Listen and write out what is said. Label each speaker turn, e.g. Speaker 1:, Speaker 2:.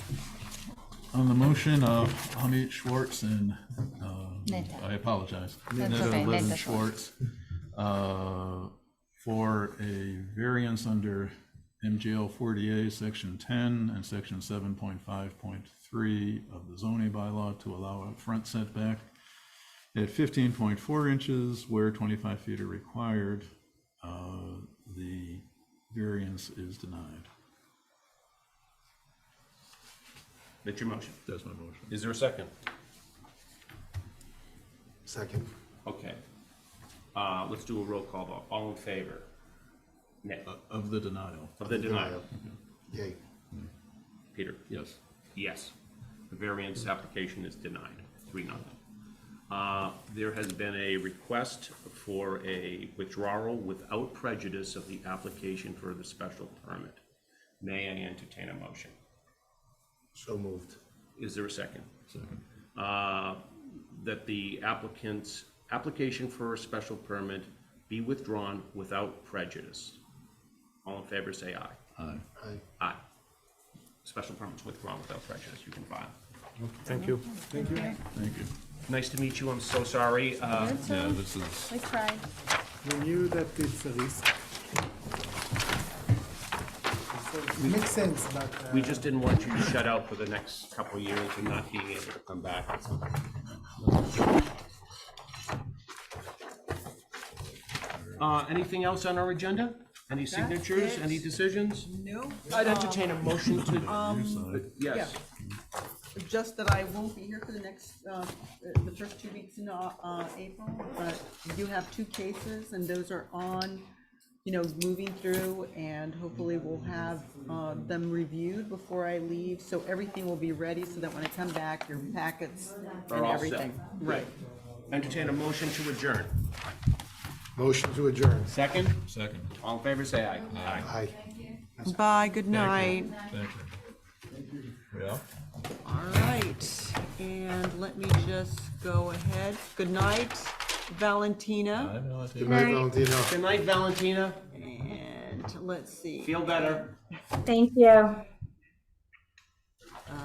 Speaker 1: On the motion of Hamid Schwartz and, uh,
Speaker 2: Neta.
Speaker 1: I apologize.
Speaker 2: That's
Speaker 1: Neta
Speaker 2: okay,
Speaker 1: Levin
Speaker 2: Neta
Speaker 1: Schwartz, uh, for a variance under MGL 40A, Section 10 and Section 7.5.3 of the zoning bylaw to allow a front setback at 15.4 inches where 25 feet are required. Uh, The variance is denied.
Speaker 3: That's your motion.
Speaker 1: That's my motion.
Speaker 3: Is there a second?
Speaker 4: Second.
Speaker 3: Okay. Uh, let's do a roll call vote. All in favor? Nick,
Speaker 1: Of the denial,
Speaker 3: of the denial.
Speaker 4: Yay.
Speaker 3: Peter?
Speaker 1: yes.
Speaker 3: Yes. The variance application is denied, three nothing. Uh, there has been a request for a withdrawal without prejudice of the application for the special permit. May I entertain a motion?
Speaker 4: So moved.
Speaker 3: Is there a second?
Speaker 1: Second.
Speaker 3: uh, that the applicant's application for a special permit be withdrawn without prejudice. All in favor, say aye.
Speaker 1: Aye.
Speaker 4: Aye.
Speaker 3: Aye. Special permit's withdrawn without prejudice, you can file.
Speaker 5: Thank you.
Speaker 1: Thank you.
Speaker 3: Nice to meet you, I'm so sorry. Uh,
Speaker 2: Good,
Speaker 1: Yeah,
Speaker 2: so
Speaker 1: this is,
Speaker 2: we tried.
Speaker 5: We knew that it's a risk. So It makes sense, but. uh,
Speaker 3: We just didn't want you to shut out for the next couple of years and not being able to come back. Uh, Anything else on our agenda? Any signatures, any decisions?
Speaker 6: No,
Speaker 3: I'd entertain a motion to,
Speaker 6: um,
Speaker 3: yes.
Speaker 6: just that I won't be here for the next, uh, the first two weeks in, uh, uh, April, but we do have two cases, and those are on, you know, moving through, and hopefully we'll have, uh, them reviewed before I leave, so everything will be ready, so that when I come back, your packets
Speaker 3: Are
Speaker 6: and
Speaker 3: all set.
Speaker 6: everything.
Speaker 3: Right. Entertain a motion to adjourn.
Speaker 4: Motion to adjourn.
Speaker 3: Second,
Speaker 1: second,
Speaker 3: all in favor, say aye. Aye.
Speaker 4: Aye.
Speaker 6: Bye, good night.
Speaker 1: thank you. Yeah.
Speaker 6: All right, and let me just go ahead. Good night, Valentina,
Speaker 1: I know, I think-
Speaker 4: Good night, Valentino.
Speaker 3: Good night, Valentina.
Speaker 6: and let's see.
Speaker 3: Feel better.
Speaker 7: Thank you.